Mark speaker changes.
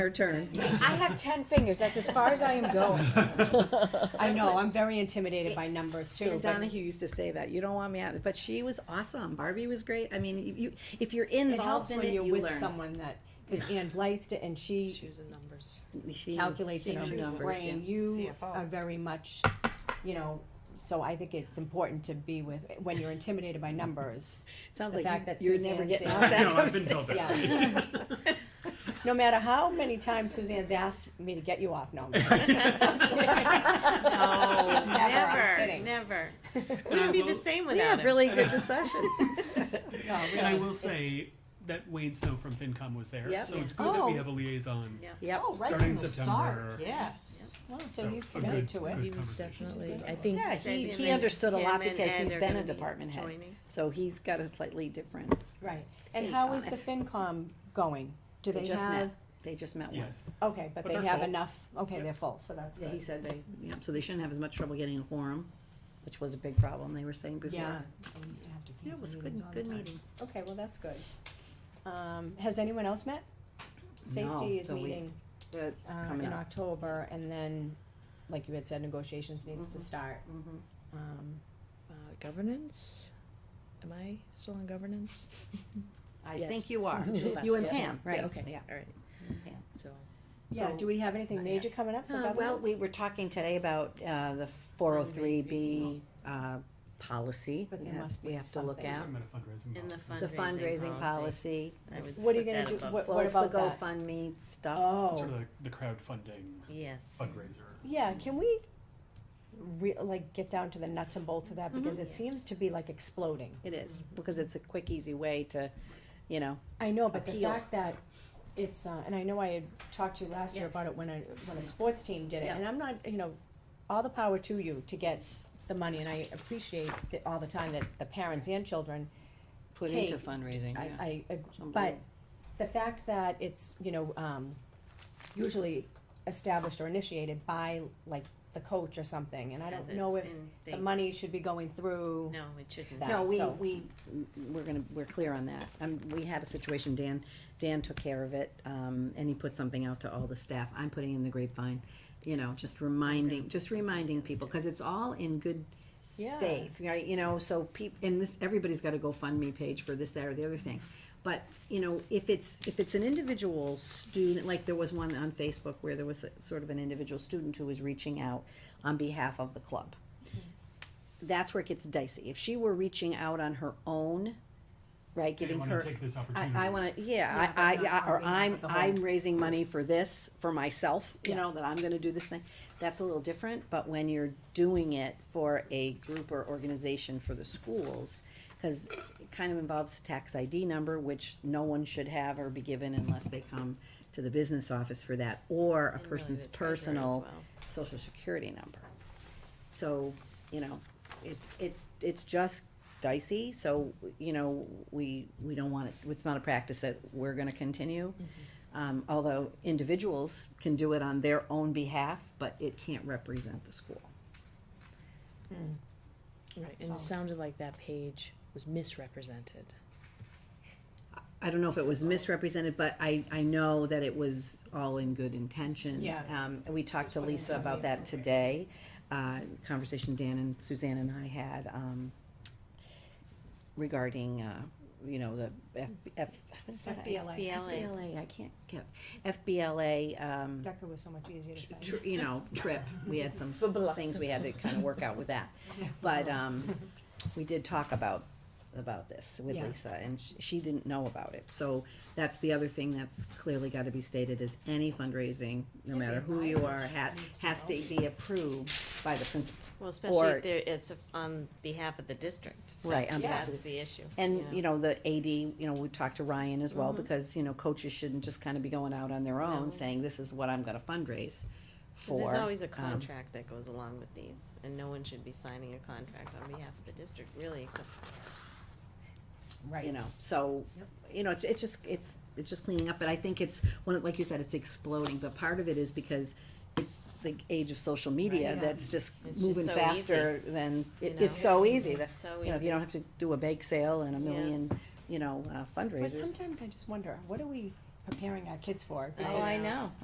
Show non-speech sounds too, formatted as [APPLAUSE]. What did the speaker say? Speaker 1: Your turn.
Speaker 2: I have ten fingers, that's as far as I am going.
Speaker 3: [LAUGHS]
Speaker 2: I know, I'm very intimidated by numbers too,
Speaker 1: Dan
Speaker 2: but
Speaker 1: Donahue used to say that, you don't want me out, but she was awesome, Barbie was great, I mean, if you, if you're
Speaker 2: it
Speaker 1: involved
Speaker 2: helps
Speaker 1: in
Speaker 2: when
Speaker 1: it,
Speaker 2: you're
Speaker 1: you
Speaker 2: with
Speaker 1: learn.
Speaker 2: someone that, cause Ann Blythe, did- and she
Speaker 4: Choose the numbers.
Speaker 1: She-
Speaker 2: calculates
Speaker 1: she
Speaker 2: in
Speaker 1: knew
Speaker 2: her
Speaker 1: numbers,
Speaker 2: brain,
Speaker 1: yeah.
Speaker 2: you
Speaker 4: CFO.
Speaker 2: are very much, you know, so I think it's important to be with, when you're intimidated by numbers,
Speaker 1: Sounds
Speaker 2: the
Speaker 1: like
Speaker 2: fact that
Speaker 1: you- you're never
Speaker 2: Suzanne's [LAUGHS]
Speaker 1: getting
Speaker 2: the-
Speaker 1: off [LAUGHS]
Speaker 3: I
Speaker 1: that.
Speaker 3: know, I've been told that. [LAUGHS]
Speaker 2: Yeah. No matter how many times Suzanne's asked me to get you off, no. I'm kidding.
Speaker 1: [LAUGHS]
Speaker 2: [LAUGHS]
Speaker 5: No,
Speaker 2: I'm
Speaker 5: never,
Speaker 2: kidding.
Speaker 5: never.
Speaker 3: And I
Speaker 5: Wouldn't be the
Speaker 3: will-
Speaker 5: same
Speaker 1: We
Speaker 5: without
Speaker 1: have
Speaker 5: him.
Speaker 1: really
Speaker 2: [LAUGHS]
Speaker 1: good discussions.
Speaker 2: No,
Speaker 3: And I
Speaker 2: really,
Speaker 3: will
Speaker 2: it's-
Speaker 3: say that Wade Snow from FinCom was there,
Speaker 1: Yep.
Speaker 3: so it's
Speaker 1: Yes.
Speaker 3: good that
Speaker 2: Oh.
Speaker 3: we have a liaison.
Speaker 5: Yeah.
Speaker 1: Yep.
Speaker 2: Oh, right
Speaker 3: Starting
Speaker 2: from the
Speaker 3: September.
Speaker 2: start, yes. Well, so he's
Speaker 3: a
Speaker 2: committed
Speaker 3: good-
Speaker 2: to it.
Speaker 3: good
Speaker 4: He was
Speaker 3: conversation.
Speaker 4: definitely, I think,
Speaker 1: Yeah, he, he understood a lot because he's been a department head,
Speaker 5: Joining.
Speaker 1: so he's got a slightly different,
Speaker 2: Right, and
Speaker 1: Hey,
Speaker 2: how is the
Speaker 1: Thomas.
Speaker 2: FinCom going? Do
Speaker 1: they
Speaker 2: they
Speaker 1: just met,
Speaker 2: have,
Speaker 1: they just met once.
Speaker 3: Yes.
Speaker 2: okay, but
Speaker 3: But
Speaker 2: they
Speaker 3: they're
Speaker 2: have
Speaker 3: full.
Speaker 2: enough, okay,
Speaker 3: Yep.
Speaker 2: they're full, so that's
Speaker 1: Yeah, he
Speaker 2: good.
Speaker 1: said they, yeah, so they shouldn't have as much trouble getting a quorum, which was a big problem they were saying before.
Speaker 2: Yeah. We used to have to
Speaker 1: Yeah, It
Speaker 2: cancel
Speaker 1: was a
Speaker 2: meetings
Speaker 1: good,
Speaker 2: all the
Speaker 1: good
Speaker 2: time.
Speaker 1: meeting.
Speaker 2: Okay, well, that's good. Um, has anyone else met? Safety is
Speaker 1: so we-
Speaker 2: meeting,
Speaker 1: Uh,
Speaker 2: uh,
Speaker 1: coming
Speaker 2: in
Speaker 1: up.
Speaker 2: October, and then, like you had said, negotiations needs
Speaker 1: Mm-hmm.
Speaker 2: to start. Um,
Speaker 4: uh, governance, am I still on governance?
Speaker 1: I
Speaker 4: Yes.
Speaker 1: think you are.
Speaker 4: Two of us,
Speaker 1: [LAUGHS] You and
Speaker 4: yes.
Speaker 1: Pam, right,
Speaker 4: Yeah, okay,
Speaker 1: yeah.
Speaker 4: all right, so.
Speaker 2: yeah,
Speaker 1: So-
Speaker 2: do we have anything
Speaker 1: Not yet.
Speaker 2: major coming up for
Speaker 1: Uh,
Speaker 2: governance?
Speaker 1: well, we were talking today about, uh, the four oh three B, uh, policy.
Speaker 2: But there
Speaker 1: that
Speaker 2: must
Speaker 1: We
Speaker 2: be
Speaker 1: have to look
Speaker 2: something.
Speaker 1: at,
Speaker 3: I'm at a fundraising.
Speaker 5: In the
Speaker 3: box.
Speaker 1: the fundraising
Speaker 5: Fundraising
Speaker 1: policy.
Speaker 5: policy. I would
Speaker 2: What are you
Speaker 5: put
Speaker 2: gonna
Speaker 5: that
Speaker 2: do,
Speaker 5: above.
Speaker 2: what,
Speaker 1: Well,
Speaker 2: what
Speaker 1: it's the
Speaker 2: about that?
Speaker 1: GoFundMe stuff.
Speaker 2: Oh.
Speaker 3: Sort of like the crowdfunding
Speaker 5: Yes.
Speaker 3: fundraiser.
Speaker 2: Yeah, can we re- like get down to the nuts and bolts of that because it seems to be like exploding.
Speaker 1: It is, because it's a quick, easy way to, you know,
Speaker 2: I know, but the
Speaker 1: Appeal.
Speaker 2: fact that it's uh, and I know I had talked to you last year about it when a when a sports team did it,
Speaker 1: Yeah.
Speaker 2: and I'm not you know, all the power to you to get the money, and I appreciate that all the time that the parents and children.
Speaker 1: put
Speaker 2: Take-
Speaker 1: into fundraising,
Speaker 2: I,
Speaker 1: yeah.
Speaker 2: I ag-
Speaker 1: Some
Speaker 2: but
Speaker 1: do.
Speaker 2: the fact that it's you know um, usually established or initiated by like the coach or something, and I don't
Speaker 5: Yeah,
Speaker 2: know if
Speaker 5: that's in-
Speaker 2: the
Speaker 5: they-
Speaker 2: money should be going through.
Speaker 5: No, it shouldn't.
Speaker 2: that,
Speaker 1: No, we,
Speaker 2: so-
Speaker 1: we, we're gonna, we're clear on that. Um, we had a situation, Dan, Dan took care of it, um, and he put something out to all the staff. I'm putting in the grapevine, you know, just reminding, just reminding people, cause it's all in good
Speaker 2: Yeah.
Speaker 1: faith, right? You know, so peop, and this, everybody's got a GoFundMe page for this, that, or the other thing. But, you know, if it's, if it's an individual student, like there was one on Facebook where there was a- sort of an individual student who was reaching out on behalf of the club. That's where it gets dicey. If she were reaching out on her own, right,
Speaker 3: They
Speaker 1: giving
Speaker 3: want to
Speaker 1: her,
Speaker 3: take this
Speaker 1: I,
Speaker 3: opportunity.
Speaker 1: I wanna, yeah,
Speaker 2: Yeah,
Speaker 1: I,
Speaker 2: but
Speaker 1: I,
Speaker 2: not
Speaker 1: or
Speaker 2: on behalf
Speaker 1: I'm,
Speaker 2: of the whole-
Speaker 1: I'm raising money for this, for myself, you
Speaker 2: Yeah.
Speaker 1: know, that I'm gonna do this thing. That's a little different, but when you're doing it for a group or organization for the schools, cause it kind of involves tax ID number, which no one should have or be given unless they come to the business office for that, or a
Speaker 5: And really
Speaker 1: person's
Speaker 5: the treasurer as
Speaker 1: personal
Speaker 5: well.
Speaker 1: social security number. So, you know, it's, it's, it's just dicey, so, you know, we, we don't want it, it's not a practice that we're gonna continue. Um, although individuals can do it on their own behalf, but it can't represent the school.
Speaker 4: Right, and it
Speaker 2: So-
Speaker 4: sounded like that page was misrepresented.
Speaker 1: I don't know if it was misrepresented, but I, I know that it was all in good intention.
Speaker 2: Yeah.
Speaker 1: Um, we talked to
Speaker 2: wasn't
Speaker 1: Lisa about
Speaker 2: totally
Speaker 1: that today, uh, conversation Dan and Suzanne and I had, um, regarding, uh, you know, the F, F, what is that?
Speaker 2: FBLA.
Speaker 1: FBLA, I can't get, FBLA, um,
Speaker 2: Decker was so much easier to say.
Speaker 1: tr- you know, trip. We had some things we had to kind of work out with that.
Speaker 2: Yeah.
Speaker 1: But, um, we did talk about, about this with
Speaker 2: Yeah.
Speaker 1: Lisa, and sh- she didn't know about it. So that's the other thing that's clearly gotta be stated is any fundraising, no
Speaker 2: Every
Speaker 1: matter who you are,
Speaker 2: advisor
Speaker 1: ha-
Speaker 2: needs to
Speaker 1: has to
Speaker 2: know.
Speaker 1: be approved by the principal.
Speaker 5: Well, especially
Speaker 1: Or-
Speaker 5: if there, it's on behalf of the district.
Speaker 1: Right, on behalf of
Speaker 5: That's the issue.
Speaker 1: And,
Speaker 4: Yeah.
Speaker 1: you know, the AD, you know, we talked to Ryan as well, because, you know, coaches shouldn't just kind of be going out on their
Speaker 5: No.
Speaker 1: own saying, this is what I'm gonna fundraise
Speaker 5: 'Cause
Speaker 1: for.
Speaker 5: There's always a
Speaker 1: um,
Speaker 5: contract that goes along with these, and no one should be signing a contract on behalf of the district, really, except
Speaker 2: Right.
Speaker 1: you know, so,
Speaker 2: Yep.
Speaker 1: you know, it's, it's just, it's, it's just cleaning up, but I think it's, one, of- like you said, it's exploding, but part of it is because it's the age of social media
Speaker 2: Right. Yeah.
Speaker 1: that's just
Speaker 5: It's just
Speaker 1: moving
Speaker 5: so
Speaker 1: faster than,
Speaker 5: You
Speaker 1: it,
Speaker 5: know?
Speaker 1: it's so easy that,
Speaker 5: so
Speaker 1: you know, if you don't have to do a bake sale and a
Speaker 5: Yeah.
Speaker 1: million, you know, uh,
Speaker 2: But
Speaker 1: fundraisers.
Speaker 2: sometimes I just wonder, what are we preparing our kids for.
Speaker 5: I
Speaker 2: because
Speaker 5: know.